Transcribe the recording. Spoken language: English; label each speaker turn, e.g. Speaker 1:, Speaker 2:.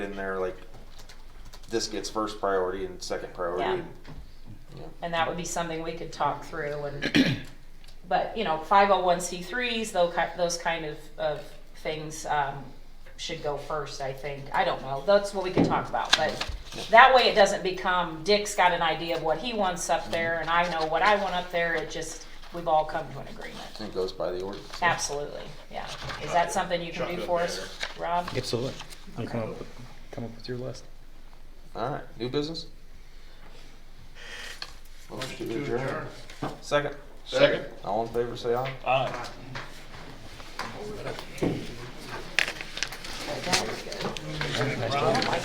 Speaker 1: in there like this gets first priority and second priority. Yeah.
Speaker 2: and that would be something we could talk through and but you know 501c3s those ki- those kind of, of things um, should go first i think i don't know that's what we could talk about but that way it doesn't become dick's got an idea of what he wants up there and i know what i want up there it just we've all come to an
Speaker 1: I
Speaker 2: agreement
Speaker 1: think it goes by the ordinance. yeah.
Speaker 2: absolutely yeah is that something you can do for us rob
Speaker 3: Absolutely. You come up, with, come up with your list.
Speaker 1: All right, new business? Motion to adjourn. Second,
Speaker 4: Second.
Speaker 1: all in favor, say aye.
Speaker 4: Aye.
Speaker 2: that was good